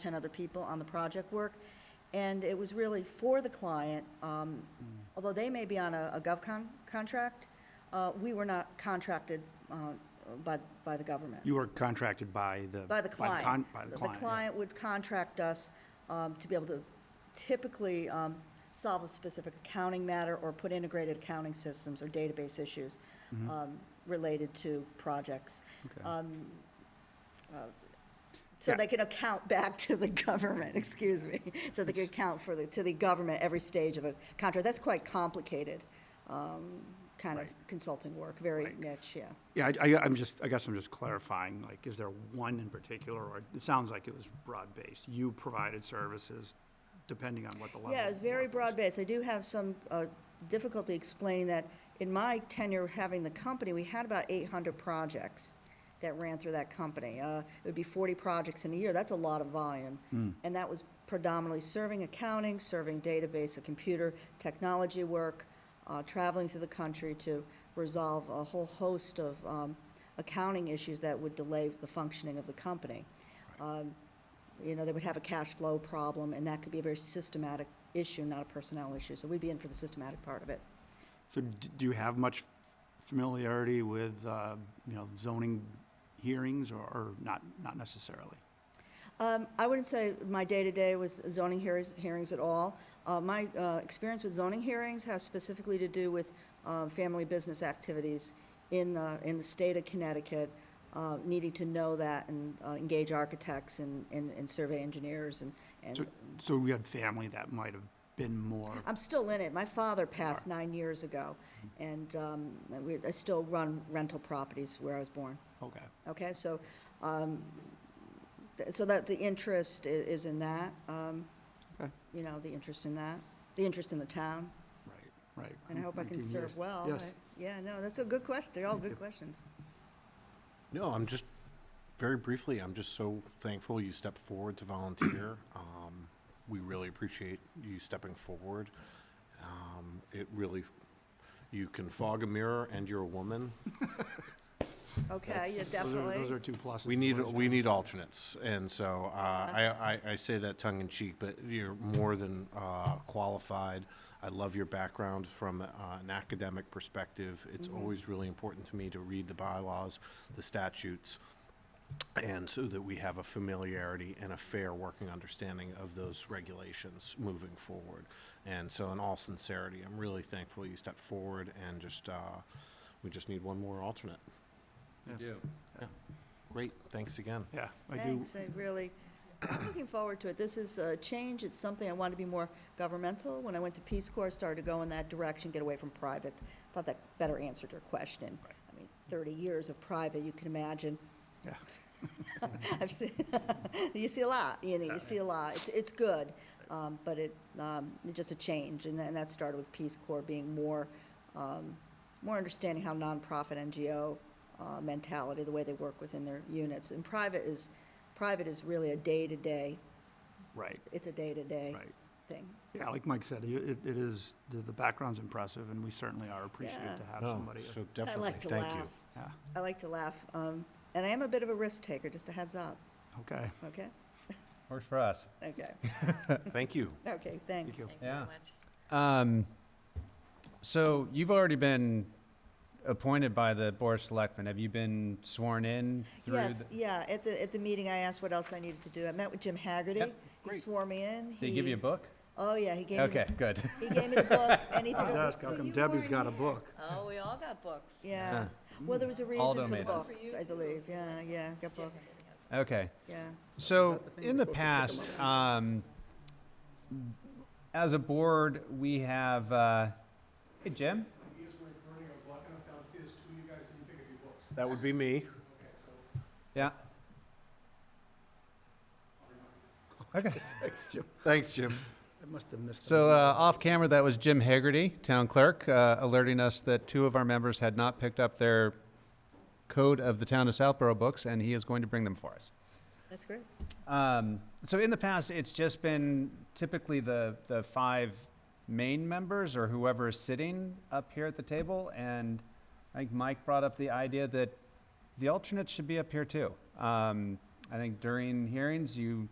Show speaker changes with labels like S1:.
S1: 10 other people on the project work. And it was really for the client,
S2: Hmm.
S1: um, although they may be on a a GovCon contract, uh, we were not contracted uh, by, by the government.
S2: You were contracted by the.
S1: By the
S2: con-
S1: client.
S2: By the
S1: The
S2: client. yeah.
S1: client would contract us um, to be able to typically um, solve a specific accounting matter or put integrated accounting systems or database issues
S2: Mm-hmm.
S1: um, related to projects.
S2: Okay.
S1: Um, uh, So
S2: Yeah.
S1: they can account back to the government, excuse me, so they can account for the, to the government every stage of a contract. That's quite complicated, um, kind of
S2: Right.
S1: consulting work, very
S2: Right.
S1: niche, yeah.
S2: Yeah, I- I, I'm just, I guess I'm just clarifying, like, is there one in particular, or it sounds like it was broad-based? You provided services depending on what the level.
S1: Yeah, it's
S2: of
S1: very
S2: work was.
S1: broad-based. I do have some uh, difficulty explaining that. In my tenure having the company, we had about 800 projects that ran through that company. Uh, It would be 40 projects in a year. That's a lot of volume. And that was predominantly serving accounting, serving database and computer technology work, uh, traveling through the country to resolve a whole host of um, accounting issues that would delay the functioning of the company you know, they would have a cash flow problem, and that could be a very systematic issue, not a personnel issue. So we'd be in for the systematic part of it.
S2: So d- do you have much familiarity with, uh, you know, zoning hearings, or- or not, not necessarily?
S1: Um, I wouldn't say my day-to-day was zoning hearings, hearings at all. Uh, my, uh, experience with zoning hearings has specifically to do with, uh, family business activities in the, in the state of Connecticut, uh, needing to know that and, uh, engage architects and, and, and survey engineers and,
S2: So,
S1: and
S2: so we had family that might have been more,
S1: I'm still in it. My father passed nine years ago, and um, we- I still run rental properties where I was born.
S2: okay,
S1: Okay, so, um, th- so that, the interest i- is in that, um,
S2: okay,
S1: you know, the interest in that, the interest in the town,
S2: right, right.
S1: and I hope I can
S2: 19 years.
S1: serve well.
S2: Yes.
S1: I- Yeah, no, that's a good question. They're all
S2: Thank
S1: good
S2: you.
S1: questions.
S3: No, I'm just, very briefly, I'm just so thankful you stepped forward to volunteer. Um, we really appreciate you stepping forward. Um, it really, you can fog a mirror and you're a woman.
S1: Okay, yeah,
S2: Those are- Those are
S1: definitely.
S2: two pluses.
S3: We need,
S2: for us
S3: we
S2: to-
S3: need alternates. And so, uh, I, I, I say that tongue in cheek, but you're more than, uh, qualified. I love your background from, uh, an academic perspective. It's always really important to me to read the bylaws, the statutes, and so that we have a familiarity and a fair working understanding of those regulations moving forward. And so, in all sincerity, I'm really thankful you stepped forward and just, uh, we just need one more alternate.
S4: Yeah.
S3: Great. Thanks again.
S2: Yeah, I do,
S1: Thanks, I really, I'm looking forward to it. This is a change, it's something I wanted to be more governmental. When I went to Peace Corps, started to go in that direction, get away from private. Thought that better answered your question. I mean, 30 years of private, you can imagine,
S2: yeah.
S1: I've seen, you see a lot, you know, you see a lot. It's, it's good, um, but it, um, it's just a change, and, and that started with Peace Corps being more, um, more understanding how nonprofit NGO, uh, mentality, the way they work within their units. And private is, private is really a day-to-day,
S2: Right,
S1: it's a day-to-day
S2: right.
S1: thing.
S2: Yeah, like Mike said, you- it, it is, the, the background's impressive, and we certainly are appreciative to
S1: Yeah.
S2: have
S3: No,
S2: somebody.
S3: Oh, So
S1: I
S3: definitely,
S1: like to
S3: thank you.
S1: laugh.
S2: Yeah,
S1: I like to laugh, um, and I am a bit of a risk taker, just a heads up,
S2: okay.
S1: okay?
S4: Works for us.
S1: Okay,
S3: Thank you.
S1: okay, thanks.
S2: Thank you.
S5: Thanks
S4: Yeah.
S5: so much.
S4: Um, so you've already been appointed by the Board of Selectmen. Have you been sworn in through?
S1: Yes,
S4: the-
S1: yeah, at the, at the meeting, I asked what else I needed to do. I met with Jim Haggerty. He
S3: great.
S1: swore me in.
S4: Did he give you a book?
S1: Oh, yeah, he gave me. the-
S4: Okay, good.
S1: He gave me the book, and he did a,
S2: Ask how come
S5: you
S2: Debbie's
S5: were
S2: got a
S5: here.
S2: book.
S5: Oh, we all got books.
S1: yeah. Well, there was a reason
S4: Aldo
S1: for the
S4: made us.
S1: books, I believe, yeah, yeah, got books,
S4: Okay.
S1: yeah.
S4: So, in the past, um, as a board, we have, uh, hey, Jim?
S6: Years when Bernie, I was walking up downstairs, two of you guys didn't pick up your books.
S3: That would be me.
S6: Okay, so
S4: Yeah?
S2: Thanks, Jim.
S3: Thanks, Jim.
S2: I must have missed.
S4: So,
S2: that.
S4: uh, off camera, that was Jim Haggerty, town clerk, uh, alerting us that two of our members had not picked up their code of the town of Southborough books, and he is going to bring them for us.
S1: That's great.
S4: Um, so in the past, it's just been typically the, the five main members or whoever is sitting up here at the table. And I think Mike brought up the idea that the alternates should be up here too. Um, I think during hearings, you